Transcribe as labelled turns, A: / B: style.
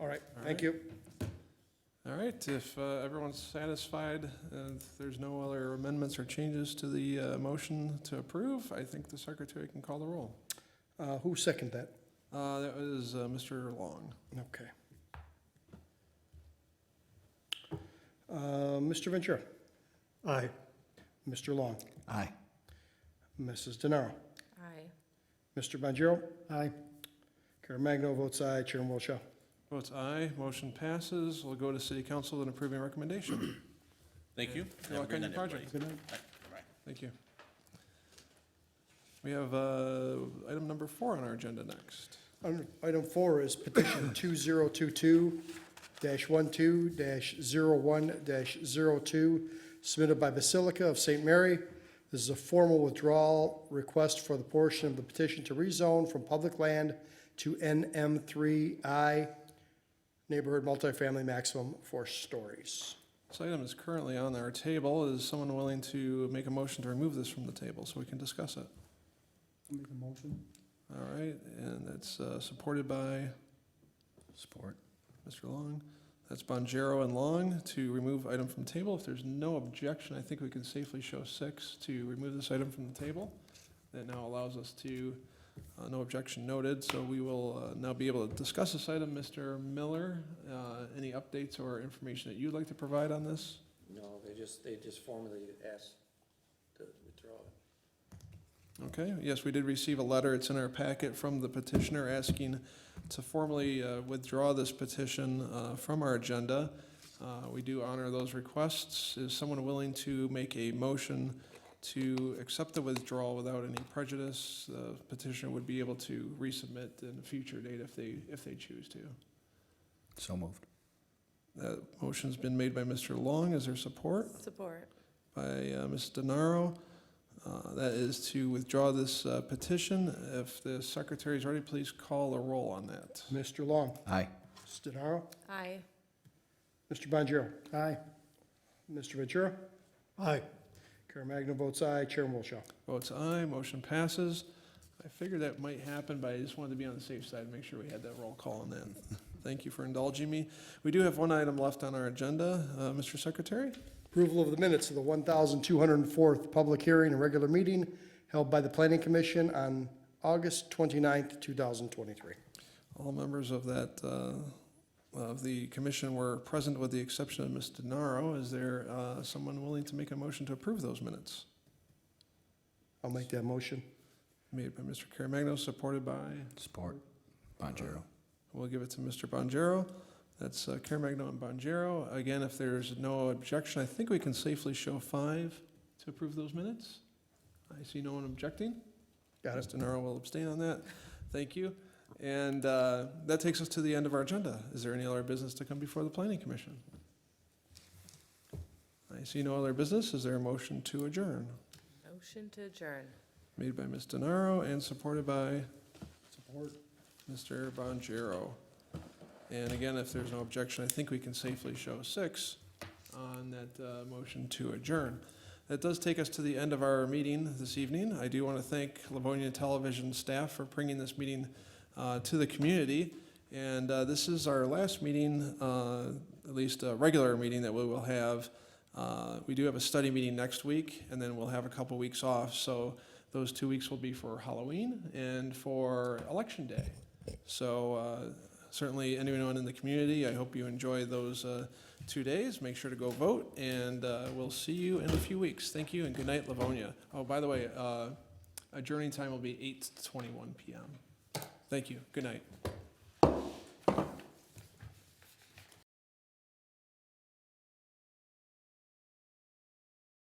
A: All right, thank you.
B: All right, if uh, everyone's satisfied, uh, if there's no other amendments or changes to the uh, motion to approve, I think the secretary can call the roll.
A: Uh, Who seconded that?
B: Uh, That was uh, Mr. Long.
A: Okay. Uh, Mr. Ventura? Aye. Mr. Long?
C: Aye.
A: Mrs. DeNaro?
D: Aye.
A: Mr. Bonjero? Aye. Caremagno votes aye, Chairman Wilshaw.
B: Votes aye, motion passes. We'll go to city council and approving recommendation.
C: Thank you.
B: Good luck on your project.
A: Good night.
B: Thank you. We have uh, item number four on our agenda next.
A: Item- Item four is petition 2022-12-01-02, submitted by Basilica of St. Mary. This is a formal withdrawal request for the portion of the petition to rezone from public land to NM3I, neighborhood multifamily maximum four stories.
B: This item is currently on our table. Is someone willing to make a motion to remove this from the table so we can discuss it?
E: Make a motion.
B: All right, and that's uh, supported by
C: Support.
B: Mr. Long. That's Bonjero and Long to remove item from table. If there's no objection, I think we can safely show six to remove this item from the table. That now allows us to, uh, no objection noted, so we will uh, now be able to discuss this item. Mr. Miller, uh, any updates or information that you'd like to provide on this?
F: No, they just, they just formally asked to withdraw it.
B: Okay, yes, we did receive a letter, it's in our packet from the petitioner asking to formally uh, withdraw this petition uh, from our agenda. Uh, We do honor those requests. Is someone willing to make a motion to accept the withdrawal without any prejudice? The Petitioner would be able to resubmit in a future date if they, if they choose to.
C: So moved.
B: That motion's been made by Mr. Long, is there support?
D: Support.
B: by uh, Ms. DeNaro. Uh, That is to withdraw this uh, petition. If the secretary is ready, please call a roll on that.
A: Mr. Long?
C: Aye.
A: Mrs. DeNaro?
D: Aye.
A: Mr. Bonjero? Aye. Mr. Ventura? Aye. Caremagna votes aye, Chairman Wilshaw.
B: Votes aye, motion passes. I figured that might happen, but I just wanted to be on the safe side and make sure we had that roll call on that. Thank you for indulging me. We do have one item left on our agenda. Uh, Mr. Secretary?
A: Approval of the minutes of the 1,204th public hearing and regular meeting held by the Planning Commission on August 29th, 2023.
B: All members of that, uh, of the commission were present with the exception of Ms. DeNaro. Is there uh, someone willing to make a motion to approve those minutes?
A: I'll make that motion.
B: Made by Mr. Caremagno, supported by,
C: Support. Bonjero.
B: we'll give it to Mr. Bonjero. That's uh, Caremagno and Bonjero. Again, if there's no objection, I think we can safely show five to approve those minutes. I see no one objecting.
A: Got it.
B: Mr. Naro will abstain on that. Thank you. And uh, that takes us to the end of our agenda. Is there any other business to come before the planning commission? I see no other business. Is there a motion to adjourn?
D: Motion to adjourn.
B: Made by Ms. DeNaro and supported by?
A: Support.
B: Mr. Bonjero. And again, if there's no objection, I think we can safely show six on that uh, motion to adjourn. That does take us to the end of our meeting this evening. I do want to thank Livonia Television staff for bringing this meeting uh, to the community. And uh, this is our last meeting, uh, at least a regular meeting that we will have. Uh, We do have a study meeting next week, and then we'll have a couple weeks off. So those two weeks will be for Halloween and for Election Day. So uh, certainly, anyone in the community, I hope you enjoy those uh, two days. Make sure to go vote, and uh, we'll see you in a few weeks. Thank you, and good night, Livonia. Oh, by the way, uh, adjourning time will be 8:21 p.m. Thank you. Good night.